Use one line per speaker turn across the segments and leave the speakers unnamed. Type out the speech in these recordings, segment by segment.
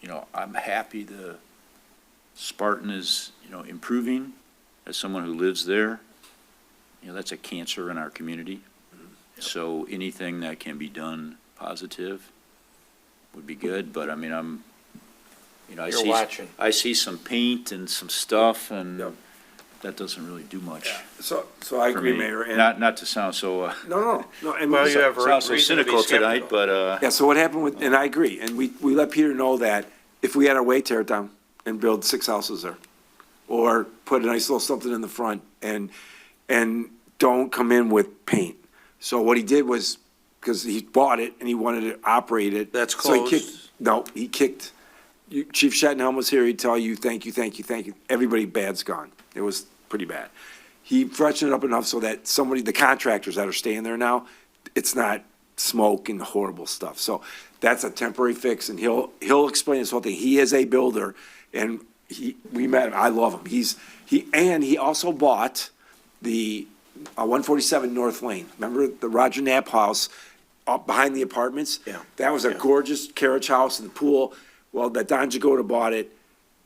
you know, I'm happy the Spartan is, you know, improving as someone who lives there. You know, that's a cancer in our community.
Mm-hmm.
So anything that can be done positive would be good, but I mean, I'm, you know, I
You're
see.
watching.
I see some paint and some stuff and
Yep.
that doesn't really do much
So, so I
for
agree,
me.
Mayor, and, no,
Not, not to sound so, uh,
no, no, and.
Well, you have a
sound so
reason to be
cynical tonight,
skeptical.
but, uh,
Yeah, so what happened with, and I agree, and we, we let Peter know that if we had our way, tear it down and build six houses there. Or put a nice little something in the front and, and don't come in with paint. So what he did was, because he bought it and he wanted to operate it.
That's
so he kicked-
closed.
No, he kicked, you- Chief Shettenhelm was here, he'd tell you, thank you, thank you, thank you. Everybody bad's gone. It was pretty bad. He freshened it up enough so that somebody, the contractors that are staying there now, it's not smoke and horrible stuff. So that's a temporary fix and he'll, he'll explain this whole thing. He is a builder and he, we met him. I love him. He's, he, and he also bought the uh, 147 North Lane. Remember the Roger Knapp house up behind the apartments?
Yeah.
That was a gorgeous carriage house and pool. Well, that Don Jagoda bought it,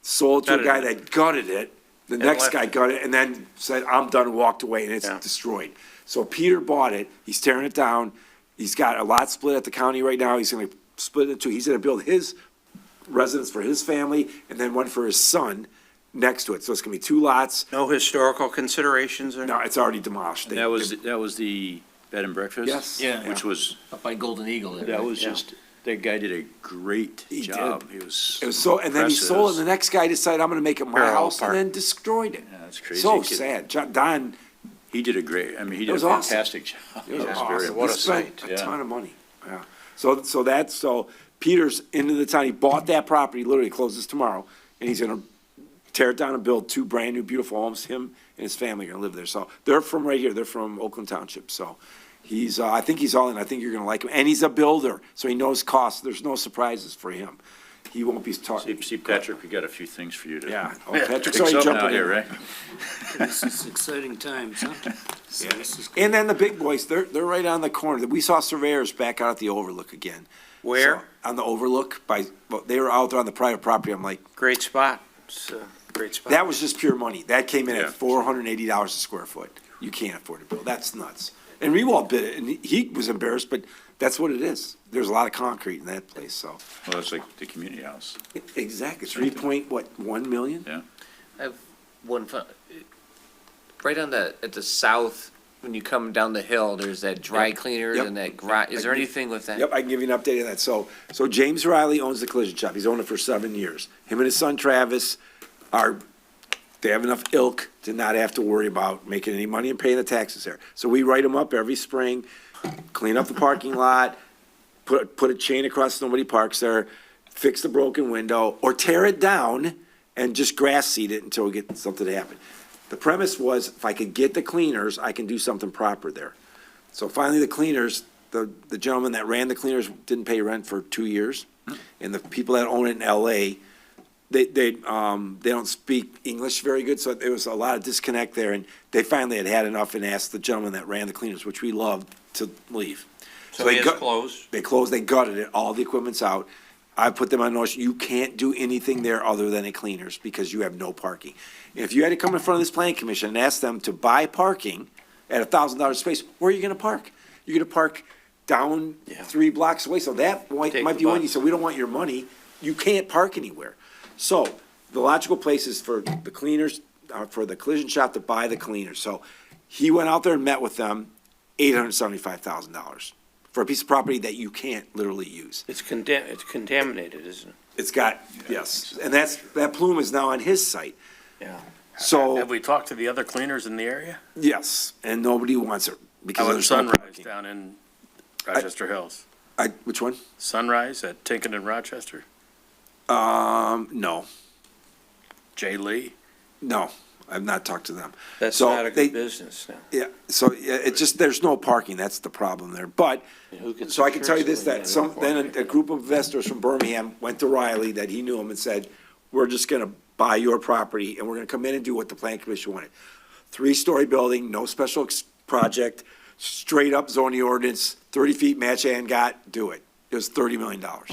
sold to a
Gutted
guy
it.
that gutted it. The next
left
guy
it.
gutted it and then said, I'm done, and walked away and it's
Yeah.
destroyed. So Peter bought it. He's tearing it down. He's got a lot split at the county right now. He's going to split it into, he's going to build his residence for his family and then one for his son next to it. So it's going to be two lots.
No historical considerations or?
No, it's already demolished. They-
that was, that was the bed and breakfast?
Yes.
Yeah.
Which was,
Up by Golden Eagle. there,
that
right?
was
Yeah.
just, that guy did a great
He did.
job. He was.
It was so, and then he sold, it, and
impressive.
the next guy decided, I'm gonna make it my
Parallel
house, and
park.
then destroyed it.
Yeah, that's crazy.
So
Kid.
sad. John, Don,
He did a great, I mean, he did a
was awesome.
fantastic job.
it was
He was very
awesome.
what
He
a
spent
sight,
a
yeah.
ton of money. Yeah. So, so that's, so Peter's into the town, he bought that property, literally closes tomorrow, and he's gonna tear it down and build two brand-new beautiful homes. Him and his family are gonna live there. So they're from right here. They're from Oakland Township. So he's, uh, I think he's all in. I think you're gonna like him. And he's a builder, so he knows costs. There's no surprises for him. He won't be
See,
talking.
see, Patrick, we got a few things for you to.
Yeah. Oh, Patrick's
Fix
already
up
jumping
now
in.
here, right?
This is exciting times, huh? So this is
And then the big boys, they're, they're right on the corner. We saw surveyors back out at the overlook again.
Where?
So, On the overlook by, well, they were out there on the private property. I'm like,
Great spot. It's a great spot.
that was just pure money. That came in
Yeah.
at four hundred and eighty dollars a square foot. You can't afford to build. That's nuts. And Rewald bid it and he- he was embarrassed, but that's what it is. There's a lot of concrete in that place, so.
Well, that's like the community house.
Exactly. Three point, what, one million?
One fun, right on the, at the south, when you come down the hill, there's that dry
Yep,
cleaner
yep.
and that garage. Is there anything with that?
Yep, I can give you an update on that. So, so James Riley owns the collision shop. He's owned it for seven years. Him and his son Travis are, they have enough ilk to not have to worry about making any money and paying the taxes there. So we write them up every spring, clean up the parking lot, put, put a chain across so nobody parks there, fix the broken window, or tear it down and just grass seed it until we get something to happen. The premise was if I could get the cleaners, I can do something proper there. So finally, the cleaners, the, the gentleman that ran the cleaners didn't pay rent for two years. And the people that own it in LA, they, they, um, they don't speak English very good, so there was a lot of disconnect there. And they finally had had enough and asked the gentleman that ran the cleaners, which we loved, to leave.
So it
they
is
gut-
closed.
They closed, they gutted it, all the equipment's out. I put them on notice, you can't do anything there other than a cleaners because you have no parking. If you had to come in front of this planning commission and ask them to buy parking at a thousand dollar space, where are you gonna park? You're gonna park down
Yeah.
three blocks away, so that might,
Take
might
the
be one,
bus.
you said, we don't want your money, you can't park anywhere. So, the logical place is for the cleaners, uh, for the collision shop to buy the cleaners, so he went out there and met with them, eight hundred seventy-five thousand dollars for a piece of property that you can't literally use.
It's condemn, it's contaminated, isn't it?
It's got, yes, and that's, that plume is now on his site.
Yeah.
Have
So,
we talked to the other cleaners in the area?
yes, and nobody wants it
How
because
about
there's no
Sunrise
parking.
down in Rochester Hills?
I, which one?
Sunrise at Tinkin and Rochester?
Um, no,
Jay Lee?
no, I've not talked to them.
That's
So
not a
they-
good business now.
Yeah, so yeah, it's just, there's no parking, that's the problem there, but,
Who gets
so I can tell you
insurance
this,
when
that
have
some,
no
then
parking?
a, a group of investors from Birmingham went to Riley that he knew him and said, we're just gonna buy your property and we're gonna come in and do what the plan commission wanted. Three-story building, no special ex- project, straight up zoning ordinance, thirty feet match and got, do it. It was thirty million dollars.